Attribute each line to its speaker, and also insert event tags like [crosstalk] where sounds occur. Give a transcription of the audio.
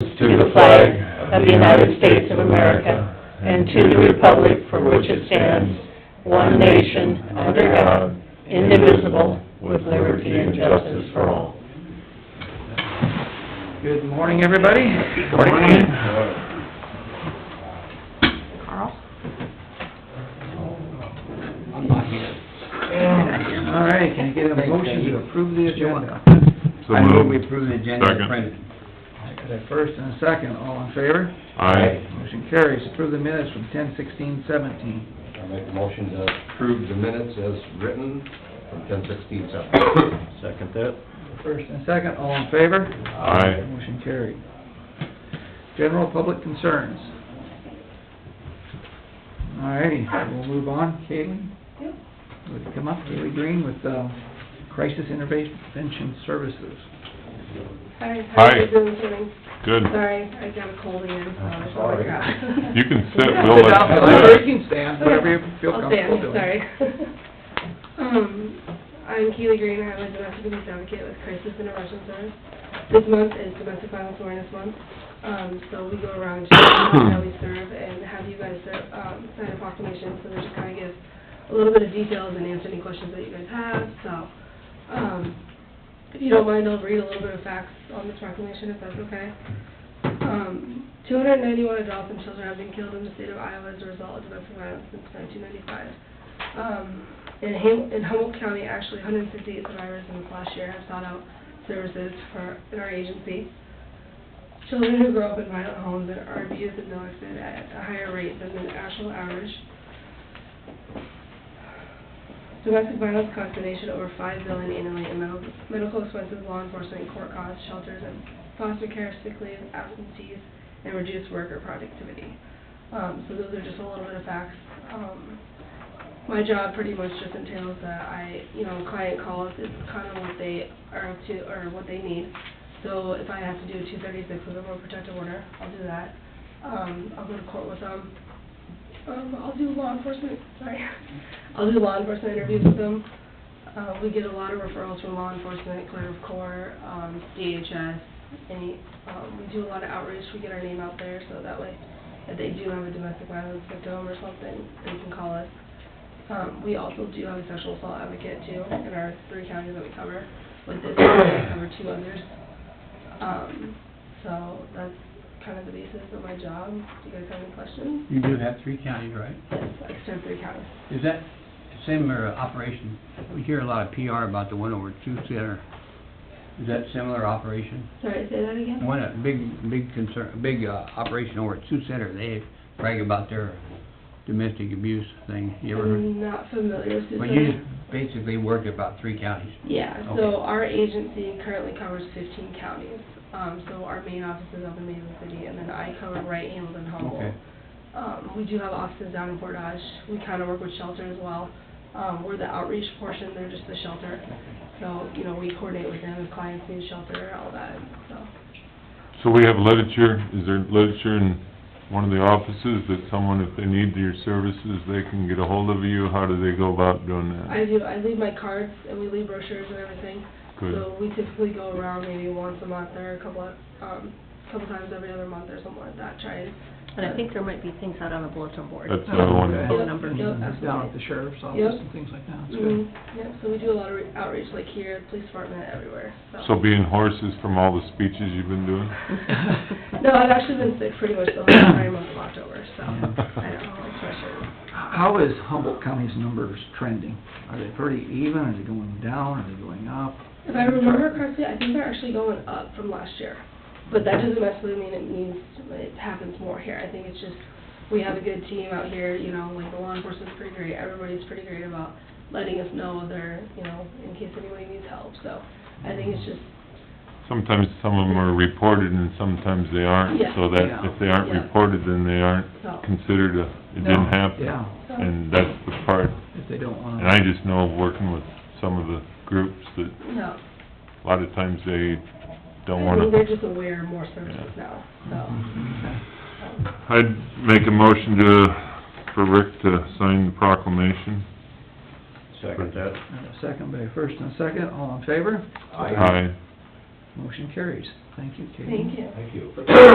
Speaker 1: to the flag of the United States of America and to the republic for which it stands, one nation, under God, indivisible, with liberty and justice for all.
Speaker 2: Good morning, everybody. Carl? I'm not here. All right, can I get a motion to approve the agenda?
Speaker 3: So
Speaker 2: I move we
Speaker 3: moved.
Speaker 2: approve the agenda as
Speaker 3: Second.
Speaker 2: printed. I got a first and a second, all in favor?
Speaker 3: Aye.
Speaker 2: Motion carries, approve the minutes from ten sixteen seventeen.
Speaker 4: I make a motion to approve the minutes as written from ten sixteen seven.
Speaker 1: Second that.
Speaker 2: First and second, all in favor?
Speaker 3: Aye.
Speaker 2: Motion carried. General public concerns. All righty, we'll move on. Caitlin? Would you come up, Kaylee Green with uh, Crisis Intervention Services.
Speaker 5: Hi, how are
Speaker 3: Hi.
Speaker 5: you doing today?
Speaker 3: Good.
Speaker 5: Sorry, I got a cold again, so I
Speaker 4: Sorry.
Speaker 5: apologize.
Speaker 3: You can sit, Bill.
Speaker 2: Sit down,
Speaker 3: That's-
Speaker 2: or you can stand, [laughs]
Speaker 5: Okay.
Speaker 2: whatever you feel
Speaker 5: I'll
Speaker 2: comfortable
Speaker 5: stand,
Speaker 2: doing.
Speaker 5: Sorry. [laughs] Um, I'm Keely Green, I'm a domestic abuse advocate with Crisis Intervention Service. This month is Domestic Violence Awareness Month, um, so we go around to how we serve and have you guys, ser- um, sign a proclamation, so they just kinda give a little bit of details and answer any questions that you guys have, so, um, if you don't mind, I'll read a little bit of facts on this proclamation, if that's okay. Um, 291 adults and children have been killed in the state of Iowa as a result of domestic violence since 1995. Um, in Ham- in Humboldt County, actually, 158 survivors in this last year have sought out services for, in our agency. Children who grow up in violent homes and are abused and neglected at a higher rate than the national average. Domestic violence costs the nation over five billion annually in medical- medical expenses, law enforcement, court costs, shelters, and foster care, sick leave, absentees, and reduced worker productivity. Um, so those are just a little bit of facts. Um, my job pretty much just entails that I, you know, client calls, it's kind of what they are up to, or what they need. So if I have to do a two thirty-six with a more protective order, I'll do that. Um, I'll go to court with them. Um, I'll do law enforcement, sorry. [laughs] I'll do law enforcement interviews with them. Uh, we get a lot of referrals from law enforcement, clear of court, um, DHS, any, um, we do a lot of outreach, we get our name out there, so that way, if they do have a domestic violence victim or something, they can call us. Um, we also do have a sexual assault advocate too, in our three counties that we cover, with this, we cover two others. Um, so that's kind of the basis of my job. Do you guys have any questions?
Speaker 6: You do have three counties, right?
Speaker 5: Yes, I serve three counties.
Speaker 6: Is that similar uh, operation? We hear a lot of PR about the one over two center. Is that similar operation?
Speaker 5: Sorry, say that again?
Speaker 6: One, a big, big concern, big, uh, operation over at two center, they brag about their domestic abuse thing. You ever heard?
Speaker 5: I'm not familiar with
Speaker 6: But you
Speaker 5: Susan.
Speaker 6: just basically work about three counties.
Speaker 5: Yeah,
Speaker 6: Okay.
Speaker 5: so our agency currently covers fifteen counties. Um, so our main office is up in Mason City, and then I cover Wright, Hamilton, Humboldt.
Speaker 6: Okay.
Speaker 5: Um, we do have offices down in Portage. We kind of work with shelter as well. Um, we're the outreach portion, they're just the shelter. So, you know, we coordinate with them if clients need shelter, all that, so.
Speaker 3: So we have literature, is there literature in one of the offices that someone, if they need your services, they can get a hold of you? How do they go about doing
Speaker 5: I
Speaker 3: that?
Speaker 5: do, I leave my cards and we leave brochures and everything.
Speaker 3: Good.
Speaker 5: So we typically go around maybe once a month or a couple of, um, couple times every other month or something like that, try and.
Speaker 7: And I think there might be things out on the bulletin board.
Speaker 3: That's what I wanted.
Speaker 5: Yep,
Speaker 7: Phone number.
Speaker 5: yep,
Speaker 2: Down at
Speaker 5: absolutely.
Speaker 2: the sheriff's office
Speaker 5: Yep.
Speaker 2: and things like that, that's good. [laughs]
Speaker 5: Mhm, Yep, so we do a lot of re- outreach, like here, police department, everywhere, so.
Speaker 3: So being horses from all the speeches you've been doing?
Speaker 5: [laughs] No, I've actually been sick pretty much the whole entire month of October, so, I don't know, it's pressure.
Speaker 2: How is Humboldt County's numbers trending? Are they pretty even, are they going down, are they going up?
Speaker 5: If I remember correctly, I think they're actually going up from last year. But that doesn't necessarily mean it means it happens more here. I think it's just, we have a good team out here, you know, like the law enforcement's pretty great. Everybody's pretty great about letting us know they're, you know, in case anybody needs help. So I think it's just,
Speaker 3: Sometimes some of them are reported and sometimes they aren't,
Speaker 5: Yeah.
Speaker 3: so that if they aren't
Speaker 5: Yeah.
Speaker 3: reported, then they aren't
Speaker 5: so.
Speaker 3: considered a, it didn't happen.
Speaker 2: Yeah,
Speaker 5: so-
Speaker 3: And that's the part,
Speaker 2: if they don't wanna.
Speaker 3: and I just know working with some of the groups that
Speaker 5: No.
Speaker 3: a lot of times they don't
Speaker 5: I think
Speaker 3: wanna
Speaker 5: they're just aware more services now, so.
Speaker 3: [laughs] I'd make a motion to, for Rick to sign the proclamation.
Speaker 1: Second that.
Speaker 2: And a Second by first and a second, all in favor?
Speaker 4: Aye.
Speaker 3: Aye.
Speaker 2: Motion carries. Thank you, Katie.
Speaker 5: Thank you.
Speaker 4: Thank you.